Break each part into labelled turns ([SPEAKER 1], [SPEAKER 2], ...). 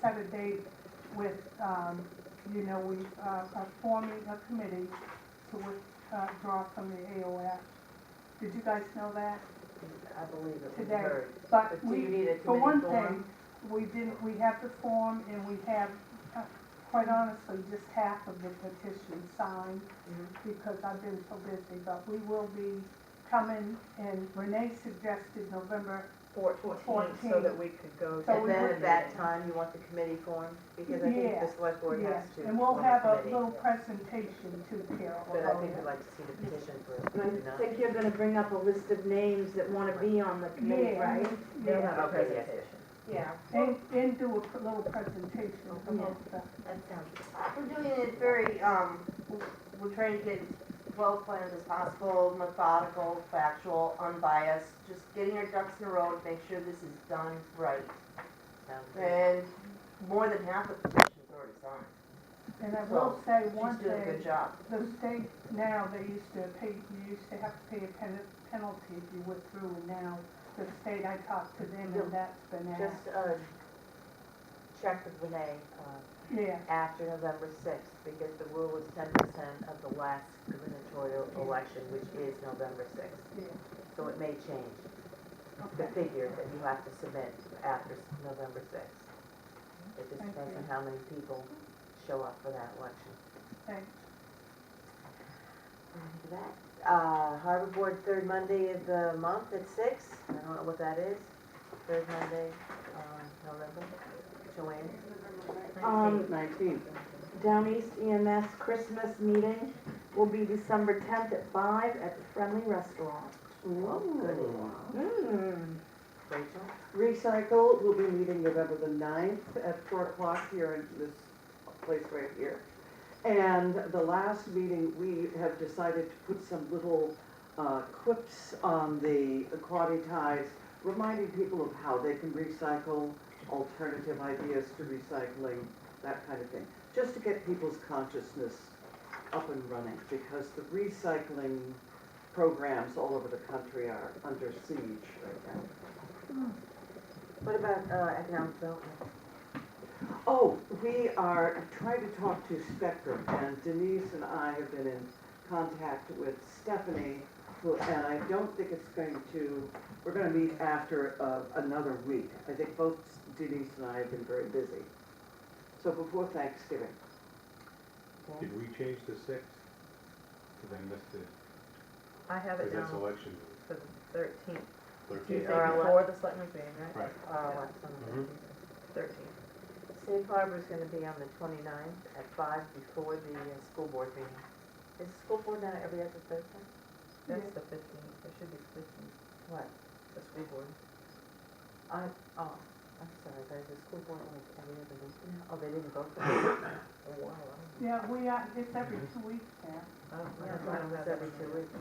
[SPEAKER 1] set a date with, um, you know, we uh, are forming a committee to withdraw from the AOF. Did you guys know that?
[SPEAKER 2] I believe it was
[SPEAKER 1] Today.
[SPEAKER 2] heard.
[SPEAKER 1] But
[SPEAKER 2] But do you
[SPEAKER 1] we,
[SPEAKER 2] need a
[SPEAKER 1] for
[SPEAKER 2] committee
[SPEAKER 1] one
[SPEAKER 2] form?
[SPEAKER 1] thing, we didn't, we have the form and we have, uh, quite honestly, just half of the petition signed
[SPEAKER 2] Mhm.
[SPEAKER 3] Mm-hmm.
[SPEAKER 1] because I've been so busy, but we will be coming and Renee suggested November,
[SPEAKER 2] Fourteen, so that we could go to
[SPEAKER 1] So
[SPEAKER 2] that
[SPEAKER 1] we
[SPEAKER 3] And then
[SPEAKER 1] would-
[SPEAKER 3] at that time, you want the committee formed, because I think
[SPEAKER 1] Yeah,
[SPEAKER 3] the select board
[SPEAKER 1] yes.
[SPEAKER 3] has to.
[SPEAKER 1] And we'll
[SPEAKER 3] form
[SPEAKER 1] have a
[SPEAKER 3] committee.
[SPEAKER 1] little presentation to Carol.
[SPEAKER 3] But I think
[SPEAKER 1] about
[SPEAKER 3] we'd
[SPEAKER 1] it.
[SPEAKER 3] like to see the petition for,
[SPEAKER 4] I
[SPEAKER 3] you know.
[SPEAKER 4] think you're gonna bring up a list of names that wanna be on the committee,
[SPEAKER 1] Yeah,
[SPEAKER 4] right?
[SPEAKER 3] They'll
[SPEAKER 1] Yeah,
[SPEAKER 3] have a
[SPEAKER 2] Okay, yes.
[SPEAKER 3] presentation.
[SPEAKER 5] Yeah,
[SPEAKER 1] and, and do a pr- little presentation about the,
[SPEAKER 5] that sounds, we're doing it very, um, we're trying to get as well planned as possible, methodical, factual, unbiased, just getting our ducks in a row to make sure this is done right.
[SPEAKER 3] Sounds good.
[SPEAKER 5] And more than half of the petition's already signed.
[SPEAKER 1] and I will say one
[SPEAKER 5] She's doing a
[SPEAKER 1] thing,
[SPEAKER 5] good job.
[SPEAKER 1] the state now, they used to pay, you used to have to pay a pen- penalty if you went through, and now the state, I talked to them, and that's been asked.
[SPEAKER 3] Just, uh, check with Renee, uh,
[SPEAKER 1] Yeah,
[SPEAKER 3] after November sixth, because the rule is ten percent of the last gubernatorial election, which is November sixth.
[SPEAKER 1] yeah,
[SPEAKER 3] So it may change, the
[SPEAKER 1] okay.
[SPEAKER 3] figure that you have to submit after s- November sixth. It just
[SPEAKER 1] Thank
[SPEAKER 3] depends on
[SPEAKER 1] you.
[SPEAKER 3] how many people show up for that election.
[SPEAKER 1] Thanks.
[SPEAKER 3] Uh, Harbor Board, third Monday of the month at six, I don't know what that is, third Monday, um, November, Joanne?
[SPEAKER 4] Um, Down East EMS Christmas meeting will be December tenth at five at the Friendly Restaurant.
[SPEAKER 3] Oh, good.
[SPEAKER 4] Mm.
[SPEAKER 3] Rachel?
[SPEAKER 6] Recycle will be meeting November the ninth at four o'clock here in this place right here. And the last meeting, we have decided to put some little uh, quips on the quaddy ties, reminding people of how they can recycle, alternative ideas to recycling, that kind of thing. Just to get people's consciousness up and running, because the recycling programs all over the country are under siege right now.
[SPEAKER 3] What about, uh, economic development?
[SPEAKER 6] Oh, we are trying to talk to Spectrum, and Denise and I have been in contact with Stephanie, who, and I don't think it's going to, we're gonna meet after uh, another week. I think both Denise and I have been very busy. So before Thanksgiving.
[SPEAKER 3] Okay.
[SPEAKER 7] Did we change the sixth? Because I missed it,
[SPEAKER 3] I have
[SPEAKER 7] because that's election
[SPEAKER 3] for the thirteenth,
[SPEAKER 7] thirteen.
[SPEAKER 3] the selectmen's meeting, Oh,
[SPEAKER 7] Right.
[SPEAKER 3] Our election
[SPEAKER 7] Mhm.
[SPEAKER 3] thirteenth. Safe Harbor's gonna be on the twenty-ninth at five before the uh, school board meeting. Is the school board now every other Thursday?
[SPEAKER 1] That's
[SPEAKER 3] the fifteenth, it should be the fifteenth. What? The school board. I, oh, I'm sorry, there's a school board like every other week now, oh, they didn't vote for it? Oh, wow.
[SPEAKER 1] Yeah, we are, it's every two weeks now.
[SPEAKER 3] Yeah, it's not- it's every two weeks.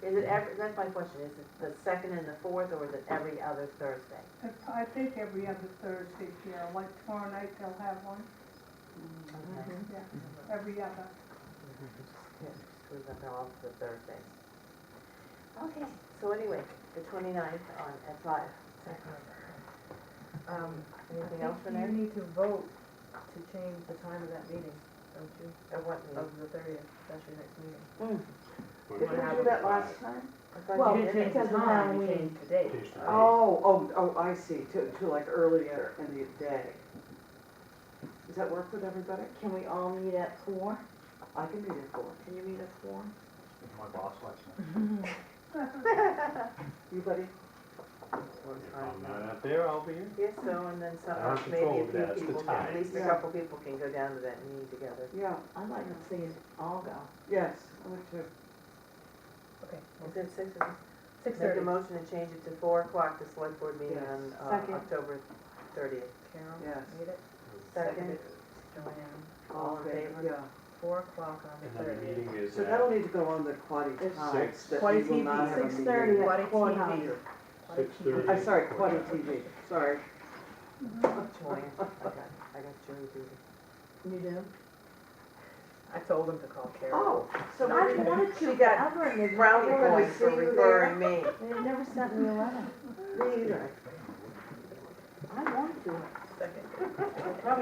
[SPEAKER 3] Is it every, that's my question, is it the second and the fourth, or is it every other Thursday?
[SPEAKER 1] It's, I think every other Thursday, Carol, like tomorrow night they'll have one,
[SPEAKER 3] Okay.
[SPEAKER 1] yeah, every other.
[SPEAKER 3] Yeah, just leave them all for the Thursdays. Okay, so anyway, the twenty-ninth on, at five.
[SPEAKER 8] Um,
[SPEAKER 3] Anything
[SPEAKER 8] I
[SPEAKER 3] else for
[SPEAKER 8] think you
[SPEAKER 3] now?
[SPEAKER 8] need to vote to change the time of that meeting, don't you?
[SPEAKER 3] Or what
[SPEAKER 8] Of
[SPEAKER 4] Oh,
[SPEAKER 3] meeting?
[SPEAKER 8] the thirtieth, that's your next meeting.
[SPEAKER 7] What
[SPEAKER 6] Did
[SPEAKER 7] about
[SPEAKER 6] we
[SPEAKER 7] the
[SPEAKER 6] do that last
[SPEAKER 7] five?
[SPEAKER 6] time?
[SPEAKER 3] I thought
[SPEAKER 4] Well,
[SPEAKER 3] you
[SPEAKER 8] You
[SPEAKER 3] did
[SPEAKER 8] didn't
[SPEAKER 3] it.
[SPEAKER 4] because
[SPEAKER 8] change
[SPEAKER 4] of
[SPEAKER 8] the time, you
[SPEAKER 4] Halloween.
[SPEAKER 8] changed the date.
[SPEAKER 7] Change the date.
[SPEAKER 6] Oh, oh, oh, I see, to, to like earlier in the day. Does that work with everybody?
[SPEAKER 4] Can we all meet at four?
[SPEAKER 6] I can be there for it.
[SPEAKER 4] Can you meet at four?
[SPEAKER 9] If my boss lets me.
[SPEAKER 6] You buddy?
[SPEAKER 3] One
[SPEAKER 7] If
[SPEAKER 3] time.
[SPEAKER 7] I'm not out there, I'll be here.
[SPEAKER 3] Yes, so, and then some,
[SPEAKER 7] I don't
[SPEAKER 3] maybe
[SPEAKER 7] control
[SPEAKER 3] a few
[SPEAKER 7] that, it's the
[SPEAKER 3] people, can- at
[SPEAKER 7] time.
[SPEAKER 3] least a
[SPEAKER 6] Yeah.
[SPEAKER 3] couple people can go down to that meeting together.
[SPEAKER 6] Yeah,
[SPEAKER 4] I'd like to see us all go.
[SPEAKER 6] yes, I would too.
[SPEAKER 8] Okay,
[SPEAKER 3] Is it six or?
[SPEAKER 8] six
[SPEAKER 3] Make
[SPEAKER 8] thirty.
[SPEAKER 3] a motion to change it to four o'clock, the select board meeting
[SPEAKER 6] Yes.
[SPEAKER 3] on, uh,
[SPEAKER 4] Second.
[SPEAKER 3] October thirtieth.
[SPEAKER 8] Carol,
[SPEAKER 6] Yes.
[SPEAKER 8] made it.
[SPEAKER 3] Second,
[SPEAKER 8] Joanne,
[SPEAKER 3] all in favor?
[SPEAKER 6] Yeah,
[SPEAKER 8] four o'clock on the
[SPEAKER 7] And then the
[SPEAKER 8] thirtieth.
[SPEAKER 7] meeting is
[SPEAKER 6] so that'll
[SPEAKER 7] at
[SPEAKER 6] need to go on the quaddy
[SPEAKER 4] It's
[SPEAKER 6] times
[SPEAKER 7] six.
[SPEAKER 6] that we
[SPEAKER 4] Quaddy
[SPEAKER 6] will
[SPEAKER 4] TV,
[SPEAKER 6] not have a
[SPEAKER 4] 6:30
[SPEAKER 6] meeting.
[SPEAKER 8] What a
[SPEAKER 4] Four
[SPEAKER 8] TV.
[SPEAKER 4] hundon.
[SPEAKER 7] six thirty.
[SPEAKER 6] I'm sorry, quaddy TV, sorry.
[SPEAKER 3] Joanne, I got, I got jury duty.
[SPEAKER 4] You do?
[SPEAKER 8] I told him to call Carol.
[SPEAKER 6] Oh, so
[SPEAKER 3] No,
[SPEAKER 6] what do
[SPEAKER 3] I
[SPEAKER 6] you,
[SPEAKER 4] wanted
[SPEAKER 3] She got
[SPEAKER 4] Ever, and
[SPEAKER 3] brownie
[SPEAKER 4] We're gonna
[SPEAKER 3] points for
[SPEAKER 4] see you
[SPEAKER 3] referring me.
[SPEAKER 4] they, they never sent me a letter.
[SPEAKER 6] me either.
[SPEAKER 4] I want to do it. second.